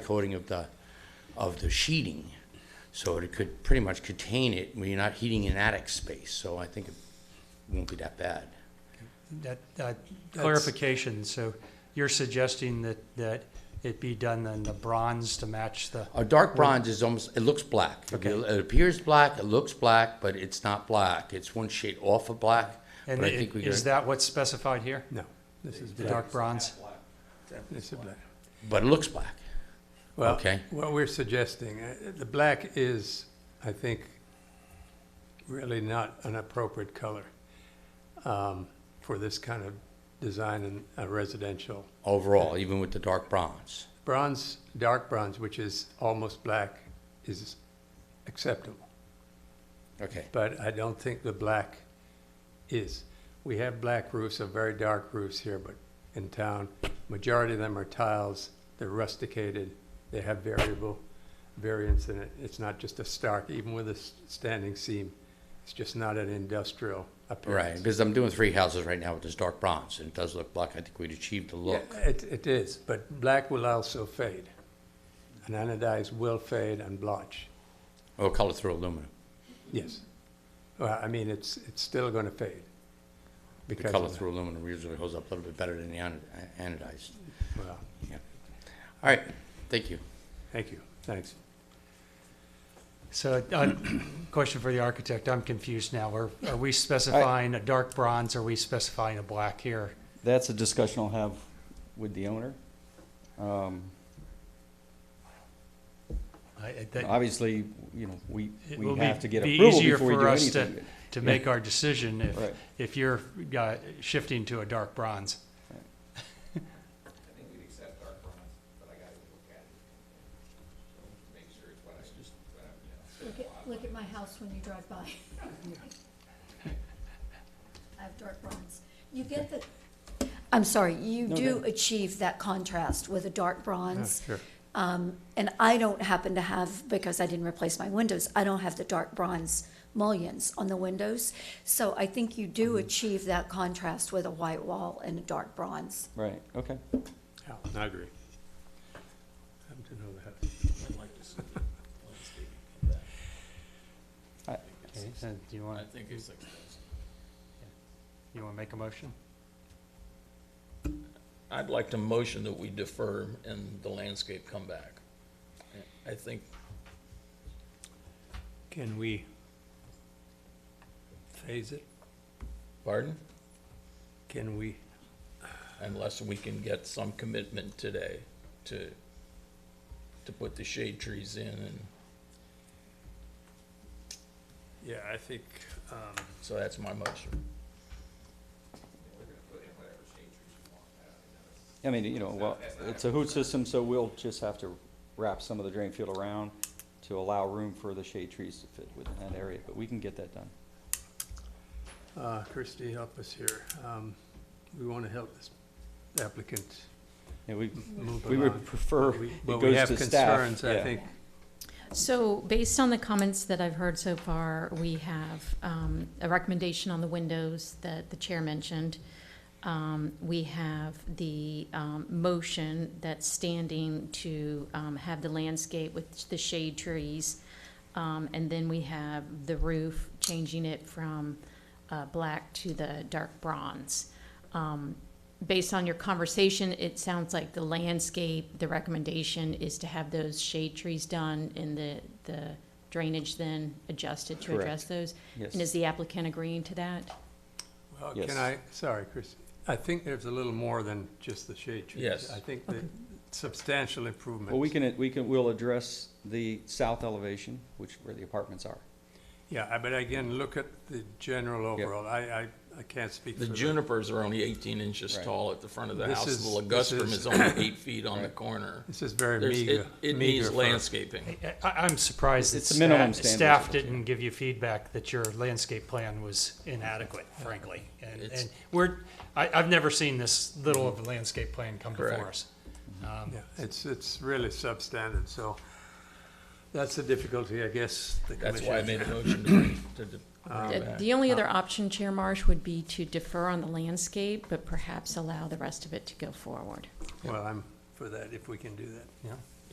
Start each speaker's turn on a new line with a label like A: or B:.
A: coating of the, of the sheeting. So it could pretty much contain it, where you're not heating an attic space, so I think it won't be that bad.
B: That, that
C: That's-
B: clarification, so you're suggesting that, that it be done in the bronze to match the,
A: A dark bronze is almost, it looks black. It-
B: Okay.
A: It appears black, it looks black, but it's not black. It's one shade off of black,
B: and
A: but I think
B: it-
A: we
B: is
A: got,
B: that what's specified here?
C: No, this is
B: The
C: black.
B: dark bronze?
C: This is black.
A: but it looks black.
C: Well,
A: Okay.
C: What we're suggesting, uh, the black is, I think, really not an appropriate color um, for this kind of design in a residential.
A: Overall, even with the dark bronze.
C: Bronze, dark bronze, which is almost black, is acceptable,
A: Okay,
C: but I don't think the black is. We have black roofs, or very dark roofs here, but in town, majority of them are tiles, they're rusticated, they have variable variance in it. It's not just a stark, even with a s- standing seam, it's just not an industrial
A: right,
C: appearance.
A: because I'm doing three houses right now with this dark bronze, and it does look black. I think we'd achieved the look.
C: Yeah, It, it is, but black will also fade. And anodized will fade and blotch.
A: Or Oh, color through aluminum,
C: Yes. Well, I mean, it's, it's still going to fade.
A: the
C: because of
A: color
C: that.
A: through aluminum usually holds up a little bit better than the anod- anodized.
C: Well,
A: All right, thank you.
C: thank you, thanks.
B: So, uh, question for the architect, I'm confused now. Are, are we specifying a dark bronze, or are we specifying a black here?
D: That's a discussion I'll have with the owner. Um,
B: I- I- Uh, that-
D: Obviously, you know, we,
B: It will
D: we
B: be-
D: have to get
B: be
D: approval
B: easier
D: before we
B: for
D: do
B: us to-
D: anything.
B: To make our decision, if,
D: Right.
B: if you're uh, shifting to a dark bronze.
E: I think we'd accept dark bronze, but I gotta look at it. So Make sure it's what I just, what I'm, you know.
F: Look at, look at my house when you drive by. I have dark bronze. You get the, I'm sorry, you
D: No,
F: do
D: good.
F: achieve that contrast with a dark
C: Yeah,
F: bronze.
C: Sure.
F: Um, and I don't happen to have, because I didn't replace my windows, I don't have the dark bronze mullions on the windows. So I think you do
D: Mm-hmm.
F: achieve that contrast with a white wall and a dark bronze.
D: Right, okay.
C: Yeah, I agree. Happen to know that.
B: Okay, so Do you want,
E: think it's expensive.
B: you want to make a motion?
E: I'd like to motion that we defer and the landscape come back. I think
C: Can we phase it?
G: Pardon?
C: Can we?
G: Unless we can get some commitment today to, to put the shade trees in and,
C: Yeah, I think, um,
G: so that's my motion.
D: I mean, you know, well, it's a hoot system, so we'll just have to wrap some of the drain field around to allow room for the shade trees to fit within that area, but we can get that done.
C: uh, Christie, help us here. Um, we want to help this applicant
D: Yeah, we,
C: move
D: we would
C: along.
D: prefer
C: We-
D: it
C: But we
D: goes
C: have
D: to staff.
C: concerns, I
D: yeah.
C: think.
H: So based on the comments that I've heard so far, we have um, a recommendation on the windows that the chair mentioned. Um, We have the um, motion that's standing to um, have the landscape with the shade trees. Um, And then we have the roof, changing it from uh, black to the dark bronze. Um, Based on your conversation, it sounds like the landscape, the recommendation is to have those shade trees done and the, the drainage then adjusted to address those.
D: Yes.
H: And is the applicant agreeing to that?
C: Well,
D: Yes.
C: can I, sorry, Chris, I think there's a little more than just the shade trees.
G: Yes.
C: I think the substantial improvements.
D: Well, we can, we can, we'll address the south elevation, which, where the apartments are.
C: Yeah, I- but again, look at the general overall. I, I, I can't speak for
G: The
C: the.
G: junipers are only eighteen inches
D: Right.
G: tall at the front of the
C: This
G: house,
C: is-
G: the
C: this
G: ligustrum
C: is-
G: is only eight feet on the
D: Right.
G: corner.
C: This is very
G: There's,
C: meager.
G: it, it
C: meager
G: needs
C: for-
G: landscaping.
B: I, I- I'm surprised that
D: It's a minimum
B: staff,
D: standard,
B: staff
D: isn't it?
B: didn't give you feedback that your landscape plan was inadequate, frankly. And,
G: It's-
B: and we're, I, I've never seen this little of a landscape plan come before
G: Correct.
B: us. Um,
C: Yeah, it's, it's really substandard, so that's the difficulty, I guess, the
G: That's why I
C: commission. Um,
G: made a motion to bring, to d- bring
H: The
G: back.
H: the only other option, Chair Marsh, would be to defer on the landscape, but perhaps allow the rest of it to go forward.
C: Well, I'm for that, if we can do that, yeah.